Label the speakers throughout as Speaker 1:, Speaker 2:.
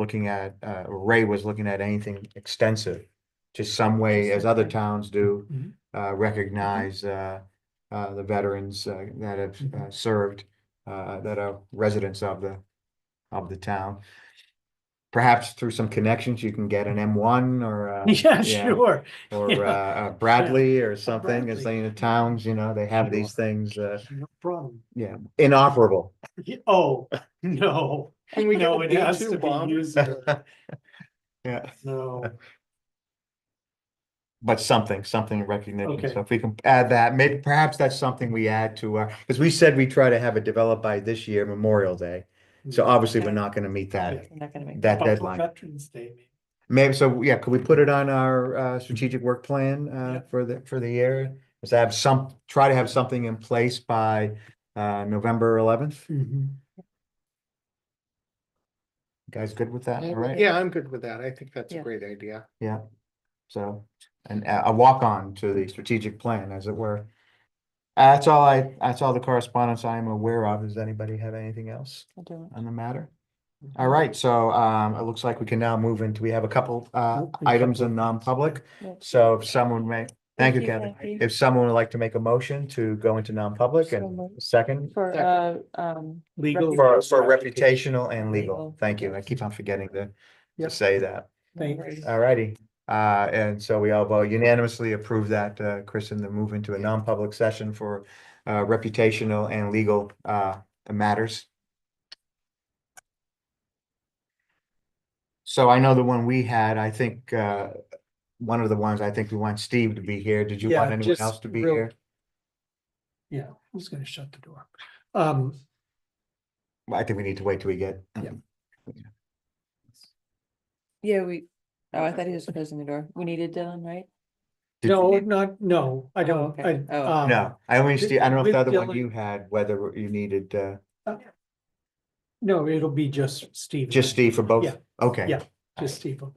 Speaker 1: looking at, uh, Ray was looking at anything extensive. Just some way, as other towns do,
Speaker 2: Mhm.
Speaker 1: uh, recognize, uh, uh, the veterans uh, that have
Speaker 2: Mm-hmm.
Speaker 1: uh, served, uh, that are residents of the, of the town. Perhaps through some connections, you can get an M one or, uh,
Speaker 2: Yeah,
Speaker 1: yeah.
Speaker 2: sure.
Speaker 1: or,
Speaker 2: Yeah.
Speaker 1: uh, uh, Bradley or something, as
Speaker 2: Bradley.
Speaker 1: they, in the towns, you know, they have these things, uh,
Speaker 2: No problem.
Speaker 1: yeah, inoperable.
Speaker 2: Oh, no,
Speaker 3: Can we
Speaker 2: no,
Speaker 3: go
Speaker 2: it has to be usable.
Speaker 1: Yeah.
Speaker 2: No,
Speaker 1: But something, something in recognition,
Speaker 2: Okay.
Speaker 1: so if we can add that, maybe perhaps that's something we add to our, because we said we try to have it developed by this year Memorial Day. So
Speaker 2: Mm-hmm.
Speaker 1: obviously, we're
Speaker 3: Okay.
Speaker 1: not gonna meet that,
Speaker 3: I'm not gonna make.
Speaker 1: that
Speaker 2: Up to
Speaker 1: deadline.
Speaker 2: Veterans Day, maybe.
Speaker 1: Maybe, so, yeah, could we put it on our, uh, strategic work plan, uh,
Speaker 2: Yeah.
Speaker 1: for the, for the year? Is to have some, try to have something in place by, uh, November eleventh?
Speaker 3: Mm-hmm.
Speaker 1: Guys good with that, all right?
Speaker 4: Yeah, I'm good with that. I think that's a
Speaker 3: Yeah.
Speaker 4: great idea.
Speaker 1: Yeah, so, and a a walk-on to the strategic plan, as it were. Uh, That's all I, that's all the correspondence I am aware of. Does anybody have anything else
Speaker 3: I'll do it.
Speaker 1: on the matter? All right, so um, it looks like we can now move into, we have a couple uh
Speaker 2: Open
Speaker 1: items
Speaker 2: couple.
Speaker 1: in non-public.
Speaker 3: Yeah.
Speaker 1: So if someone may, thank you, Kevin.
Speaker 3: Kathy,
Speaker 1: If someone would like to make a motion to go into non-public
Speaker 3: So
Speaker 1: and
Speaker 3: moved.
Speaker 1: second
Speaker 3: For, uh, um,
Speaker 2: Legal.
Speaker 1: for for reputational and legal.
Speaker 3: Legal.
Speaker 1: Thank you. I keep on forgetting to
Speaker 2: Yeah.
Speaker 1: to say that.
Speaker 2: Thanks.
Speaker 1: All righty, uh, and so we all vote unanimously approve that, uh, Kristen, to move into a non-public session for, uh, reputational and legal, uh, matters. So I know the one we had, I think, uh, one of the ones, I think we want Steve to be here. Did you want
Speaker 2: Yeah,
Speaker 1: anyone
Speaker 2: just
Speaker 1: else to be
Speaker 2: real-
Speaker 1: here?
Speaker 2: Yeah, who's gonna shut the door? Um,
Speaker 1: Well, I think we need to wait till we get. um,
Speaker 2: Yeah.
Speaker 3: yeah, we, oh, I thought he was closing the door. We needed Dylan, right?
Speaker 1: Did-
Speaker 2: no, not, no, I
Speaker 3: Oh,
Speaker 2: don't,
Speaker 3: okay.
Speaker 2: I,
Speaker 3: Oh.
Speaker 2: um.
Speaker 1: No, I only, Steve, I don't know if
Speaker 2: With
Speaker 1: the other one
Speaker 2: Dylan-
Speaker 1: you had, whether you needed, uh,
Speaker 2: No, it'll be just Steve. and
Speaker 1: just
Speaker 2: I.
Speaker 1: Steve for both?
Speaker 2: Yeah.
Speaker 1: Okay.
Speaker 2: Yeah. Just Steve. and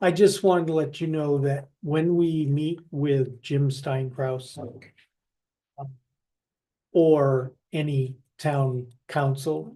Speaker 2: I. I just wanted to let you know that when we meet with Jim Stein Kraus. Or any town council